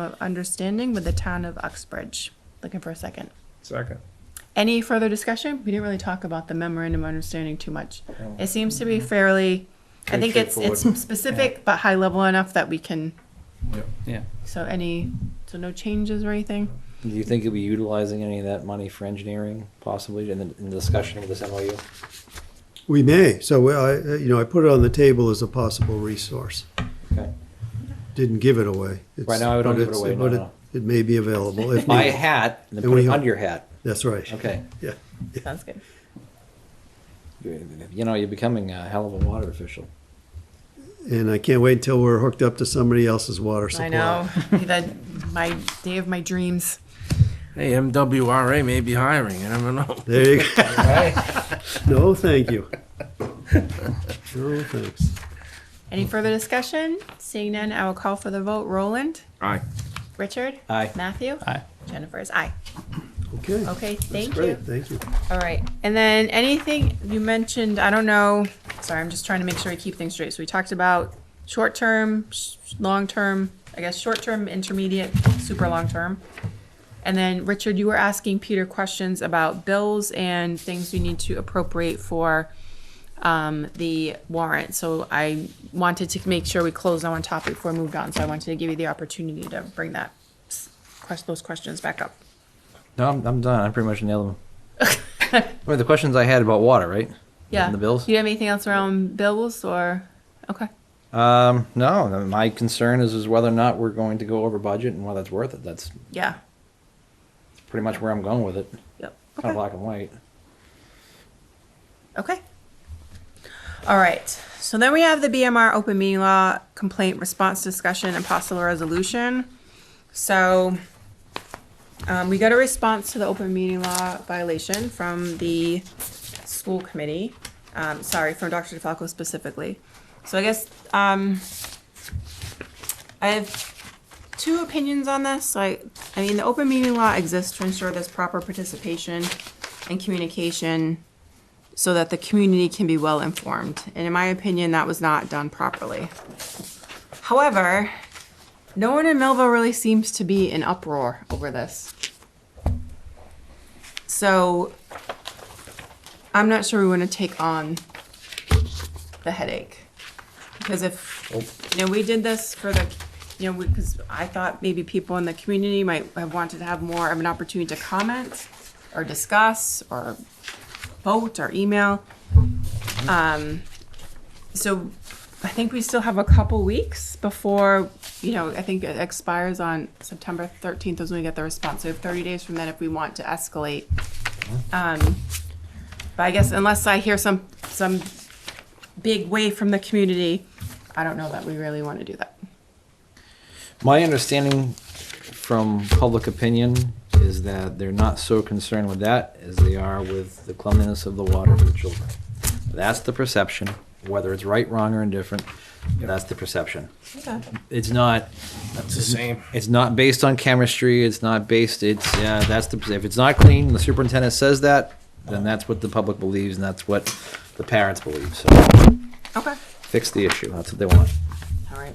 of understanding with the town of Uxbridge. Looking for a second. Second. Any further discussion? We didn't really talk about the memorandum of understanding too much. It seems to be Mm-hmm. fairly, I think it's, it's specific, but high level enough that we can, Yeah. so any, so no changes or anything? Do you think you'll be utilizing any of that money for engineering possibly in the, in the discussion with this MOU? We may, so I, you know, I put it on the table as a possible resource. Okay. Didn't give it away. It's- Right now, I don't but give it it's- away, no, but no. It it may be available if Buy a needed. hat and then And put we it hope- under your hat. That's right. Okay. Yeah. Sounds good. You know, you're becoming a hell of a water official. And I can't wait until we're hooked up to somebody else's water supply. I know, that, my, day of my dreams. Hey, MWRA may be hiring. I don't know. There you go. No, thank you. No, thanks. Mm-hmm. Any further discussion? Seeing none, I will call for the vote. Roland? Aye. Richard? Aye. Matthew? Aye. Jennifer's aye. Okay. Okay, That's thank you. great. Thank you. All right, and then anything you mentioned, I don't know, sorry, I'm just trying to make sure we keep things straight. So we talked about short-term, sh- long-term, I guess, short-term, intermediate, super long-term. And then, Richard, you were asking Peter questions about bills and things we need to appropriate for um, the warrant. So I wanted to make sure we closed on one topic before we moved on, so I wanted to give you the opportunity to bring that, s- quest- those questions back up. No, I'm, I'm done. I pretty much nailed them. Well, the questions I had about water, right? Yeah. And the bills? Do you have anything else around bills or, okay, Um, no, my concern is, is whether or not we're going to go over budget and whether it's worth it. That's yeah, pretty much where I'm going with it. yep, Kind of okay, black and white. okay. All right, so then we have the BMR open meeting law complaint response discussion and possible resolution. So, um, we got a response to the open meeting law violation from the school committee, um, sorry, from Dr. DeFalco specifically. So I guess, um, I have two opinions on this. So I, I mean, the open meeting law exists to ensure there's proper participation and communication so that the community can be well informed. And in my opinion, that was not done properly. However, no one in Millville really seems to be in uproar over this. So I'm not sure we want to take on the headache. Because if, you know, we did this for the, you know, because I thought maybe people in the community might have wanted to have more of an opportunity to comment or discuss or vote or email. Um, so I think we still have a couple weeks before, you know, I think it expires on September thirteenth is when we get the response. So we have thirty days from then if we want to escalate. Um, but I guess unless I hear some, some big wave from the community, I don't know that we really want to do that. My understanding from public opinion is that they're not so concerned with that as they are with the cleanliness of the water for the children. That's the perception, whether it's right, wrong, or indifferent, that's the perception. Okay. It's not, That's the same. it's not based on chemistry, it's not based, it's, yeah, that's the, if it's not clean, the superintendent says that, then that's what the public believes, and that's what the parents believe, so Okay. fix the issue, that's what they want. All right.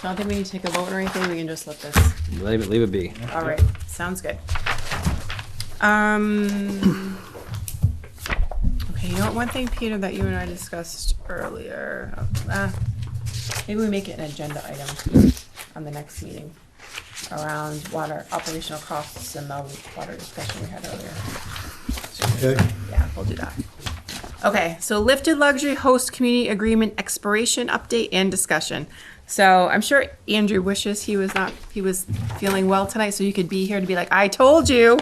So I don't think we need to take a vote or anything. We can just let this. Leave it, leave it be. All right. Sounds good. Um. Okay. You know what? One thing, Peter, that you and I discussed earlier. Uh, maybe we make it an agenda item on the next meeting around water operational costs and the water discussion we had earlier. Okay. Yeah, we'll do that. Okay, so lifted luxury host community agreement expiration update and discussion. So I'm sure Andrew wishes he was not, he was feeling well tonight, so you could be here to be like, I told you.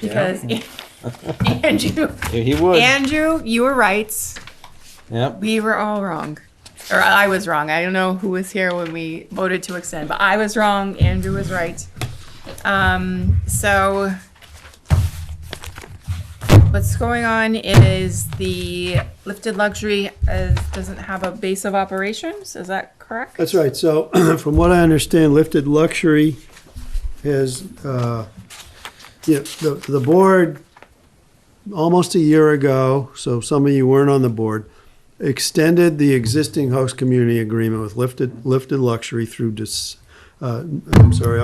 Because Andrew, Yeah, He would, Andrew, you were right. yep. We were all wrong. Or I was wrong. I don't know who was here when we voted to extend, but I was wrong. Andrew was right. Um, so what's going on is the lifted luxury is, doesn't have a base of operations. Is that correct? That's right. So from what I understand, Lifted Luxury has, uh, you know, the, the board, almost a year ago, so some of you weren't on the board, extended the existing host community agreement with Lifted, Lifted Luxury through Dec- uh, I'm sorry,